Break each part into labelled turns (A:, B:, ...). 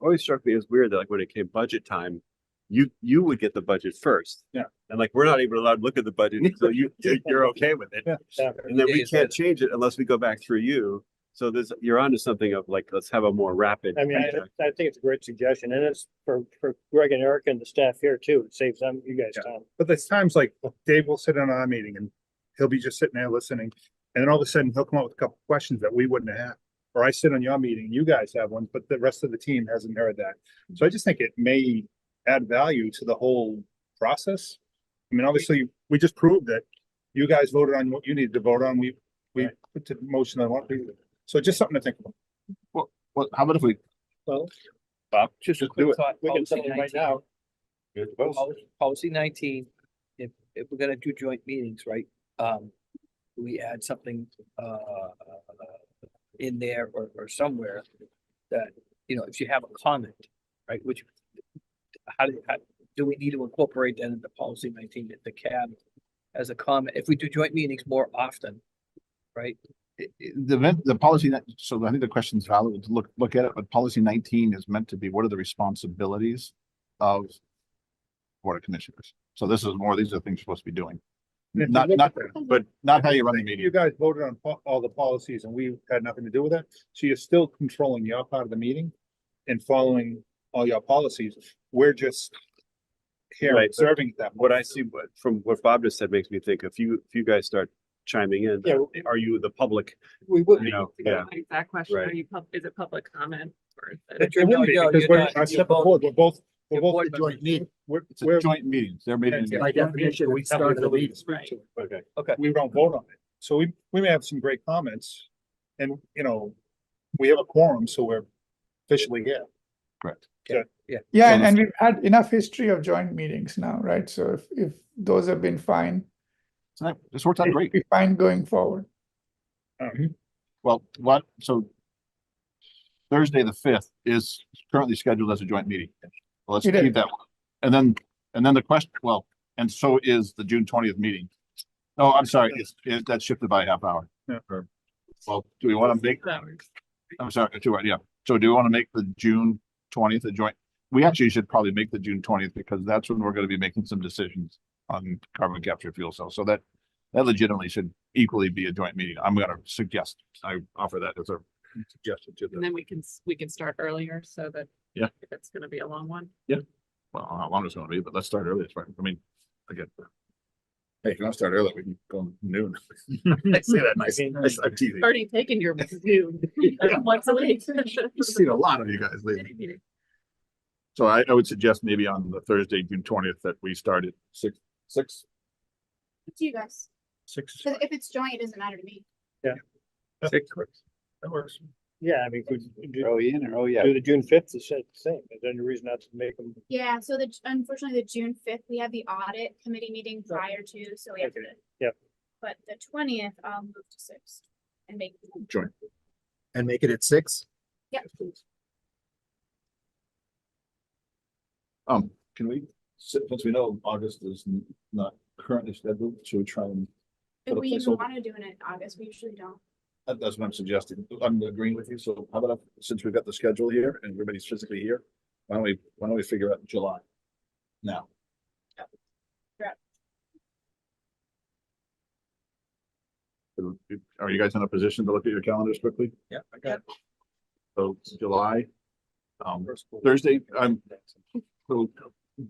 A: always struck me as weird that like when it came budget time, you, you would get the budget first.
B: Yeah.
A: And like, we're not even allowed to look at the budget until you, you're okay with it.
B: Yeah.
A: And then we
C: Days
A: can't
C: later.
A: change it unless we go back through you. So there's, you're onto something of like, let's have a more rapid.
D: I mean, I,
A: feedback.
D: I think it's a great suggestion and it's for, for Greg and Eric and the staff here too. It saves them, you guys
B: Yeah.
D: time.
B: But there's times like Dave will sit in on our meeting and he'll be just sitting there listening. And then all of a sudden he'll come up with a couple questions that we wouldn't have. Or I sit on your meeting, you guys have one, but the rest of the team hasn't heard that. So I just think it may add value to the whole process. I mean, obviously, we just proved that you guys voted on what you needed to vote on. We, we put the motion on what we, so just something to think about.
E: Well, how about if we?
D: Well-
E: Bob, just do it.
D: We can settle it right now.
C: Policy- Policy nineteen, if, if we're gonna do joint meetings, right, um, we add something, uh, in there or, or somewhere that, you know, if you have a comment, right, which, how do, how, do we need to incorporate that into policy nineteen, at the CAB as a comment, if we do joint meetings more often, right?
E: I- I- The event, the policy, that- so I think the question's valid to look, look at it, but policy nineteen is meant to be, what are the responsibilities of Board of Commissioners? So this is more, these are things you're supposed to be doing,
B: And if you
E: not,
B: look
E: not,
B: at that,
E: but not how you run the
B: You
E: meeting.
B: guys voted on po- all the policies and we had nothing to do with that. So you're still controlling your part of the meeting and following all your policies. We're just here
A: Right.
B: observing them.
A: What I see, what, from what Bob just said makes me think if you, if you guys start chiming in,
D: Yeah,
A: are you the public,
D: we would.
A: you know?
F: to
A: Yeah.
F: go back to That question,
A: Right.
F: are you, pub- is it public comment? or is it-
C: But you're- no, no,
B: Because
C: you're
B: we're,
C: not-
B: I
C: you're
B: step
C: both-
B: forward, we're both, we're
C: you're
B: both,
C: board members.
B: we're,
E: It's a
B: we're.
E: joint meetings, they're meeting.
B: By definition, we start the meetings.
F: Right.
A: Okay.
B: We don't vote on it. So we, we may have some great comments and, you know, we have a quorum, so we're officially here.
E: Correct.
G: Yeah, and,
E: that's
G: and we've had enough history of joint meetings now, right? So if, if those have been fine,
E: So that- This worked out
G: it'll
E: great.
G: be fine going forward.
B: Um,
E: Well, what, so Thursday, the fifth is currently scheduled as a joint meeting. Well, Let's
G: It is.
E: keep that one. And then, and then the question, well, and so is the June twentieth meeting. Oh, I'm sorry, it's, it, that shifted by a half hour.
B: Yeah.
E: Or- Well, do we want to make,
F: Hours.
E: I'm sorry, two, hours, yeah. So do we want to make the June twentieth a joint? We actually should probably make the June twentieth because that's when we're going to be making some decisions on carbon capture fuel cells. So that, that legitimately should equally be a joint meeting. I'm going to suggest, I offer that as a suggestion to
F: And
E: the,
F: then we can, s- we can start earlier so that.
E: Yeah.
F: If it's gonna be a long one.
E: well, how long it's going to be, but let's start early. It's fine. I mean, again. Hey, if you want to start early, we can go noon. I say that nice, nice, I'm teasing.
F: Already taken your noon. Once a week.
E: I've seen a lot of you guys lately. So I, I would suggest maybe on the Thursday, June twentieth, that we start at six, six,
H: Up to you guys,
B: Six.
H: 'Cause if it's joint, it doesn't matter to me.
E: six.
B: That works.
D: Yeah, I mean, if we do,
E: in or oh, yeah.
D: do the June fifth, it's the same. There's any reason not to make them.
H: Yeah, so the, unfortunately, the June fifth, we have the audit committee meeting prior to, so we have to.
D: Okay, yep.
H: But the twentieth, I'll move to six and make.
E: Joint.
C: And make it at six?
H: Yep.
E: Um, can we, si- since we know August is n- not currently scheduled, should we try and,
H: If
E: Put a
H: we even
E: placeholder.
H: wanna do it in August, we usually don't.
E: that- that's what I'm suggesting. I'm agreeing with you. So how about, if- since we've got the schedule here and everybody's physically here, why don't we, why don't we figure out July? Now, are you guys in a position to look at your calendars quickly?
C: Yeah, I got it.
E: So July, um, Thursday, I'm, so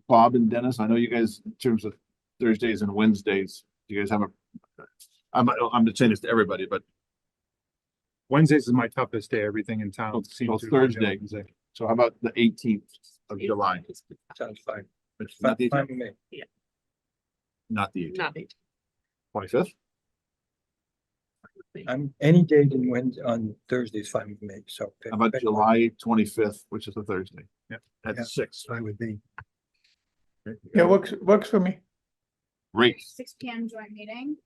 E: Bob and Dennis, I know you guys, in terms of Thursdays and Wednesdays, you guys have a, I'm, I'm just saying this to everybody, but
B: Wednesdays is my toughest day. Everything in town.
E: So-
B: seems
E: so
B: to be on
E: Thursday.
B: Wednesday.
E: so how about the eighteenth of July?
C: Sounds fine.
E: Which is
C: Fine
E: not the
C: fine with me.
E: Not the
F: Not eight.
E: twenty-fifth?
C: I'm, any day in Wed, on Thursday is fine with me, so.
E: How about July twenty-fifth, which is a Thursday?
B: Yeah.
E: At six.
C: Fine with me.
G: Yeah, works, works for me.
E: Great.
H: Six P M joint meeting.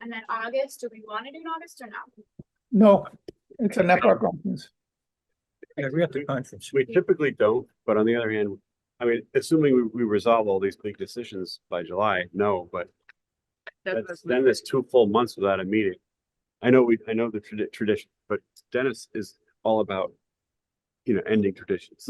H: And then August, do we wanna do it in August or not?
G: No, it's a NEPA conference.
C: Yeah, we have the conference.
A: We typically don't, but on the other hand, I mean, assuming we, we resolve all these big decisions by July, no, but
F: That's-
A: that's, then there's two full months without a meeting. I know we, I know the tradi- tradition, but Dennis is all about you know, ending traditions.